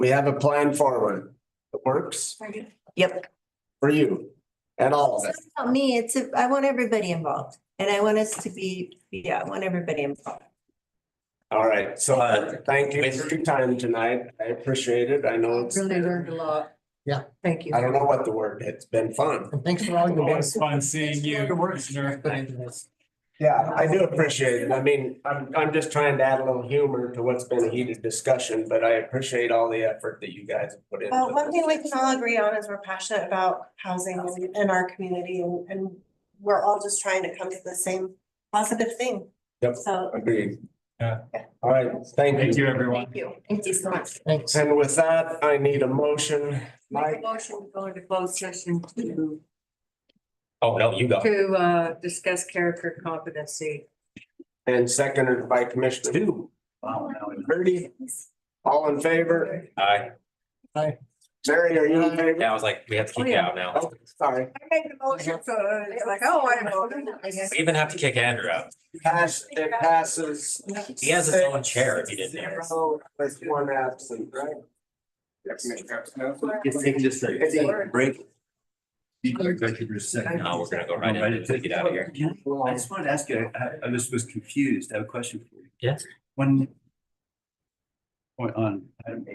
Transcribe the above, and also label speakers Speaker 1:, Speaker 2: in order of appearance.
Speaker 1: We have a plan forward. It works
Speaker 2: Yep.
Speaker 1: for you and all
Speaker 2: It's
Speaker 1: of
Speaker 2: not
Speaker 1: us.
Speaker 2: about me, it's, a- I want everybody involved and I want us to be, yeah, I want everybody involved.
Speaker 1: All right, so
Speaker 3: Uh,
Speaker 1: thank you
Speaker 3: with-
Speaker 1: for your time tonight. I appreciate it. I know it's,
Speaker 4: Really learned a lot.
Speaker 5: Yeah.
Speaker 4: Thank you.
Speaker 1: I don't know what the word, it's been fun.
Speaker 5: And thanks for all your work.
Speaker 3: Always fun seeing you, Commissioner.
Speaker 5: Put into this.
Speaker 1: Yeah, I do appreciate it. I mean, I'm, I'm just trying to add a little humor to what's been a heated discussion, but I appreciate all the effort that you guys have put
Speaker 6: Well, Uh, one thing
Speaker 1: into
Speaker 6: we can all agree on is we're passionate about housing in- in our community and, and we're all just trying to come to the same positive thing.
Speaker 1: Yep.
Speaker 6: So,
Speaker 1: this. Agreed.
Speaker 3: Yeah.
Speaker 1: All right, thank
Speaker 3: Thank
Speaker 1: you.
Speaker 3: you, everyone.
Speaker 6: thank you.
Speaker 4: Thank you so much.
Speaker 5: Thanks.
Speaker 1: And with that, I need a motion.
Speaker 4: Make
Speaker 1: Mike?
Speaker 4: a motion to go into closed session to,
Speaker 3: Oh, no, you go.
Speaker 4: to, uh, discuss character competency.
Speaker 1: And seconded by Commissioner Two. Birdie, all in favor?
Speaker 3: Aye.
Speaker 1: Mary, are you in favor?
Speaker 3: Yeah, I was like, we have to kick you out now.
Speaker 1: Oh, sorry.
Speaker 4: I made the motion, so it's like, oh, I voted. I guess.
Speaker 3: We even have to kick Andrew out.
Speaker 1: Pass, it passes.
Speaker 3: He has his own chair if he didn't hear.
Speaker 1: So, There's one absent, right?
Speaker 7: It's taking just a
Speaker 1: It's a-
Speaker 7: break. Executive session.
Speaker 3: No, we're gonna go right in and get out of here.
Speaker 7: I just wanted to ask you, I, I just was confused. I have a question for you.
Speaker 3: Yes.
Speaker 7: When. Point on item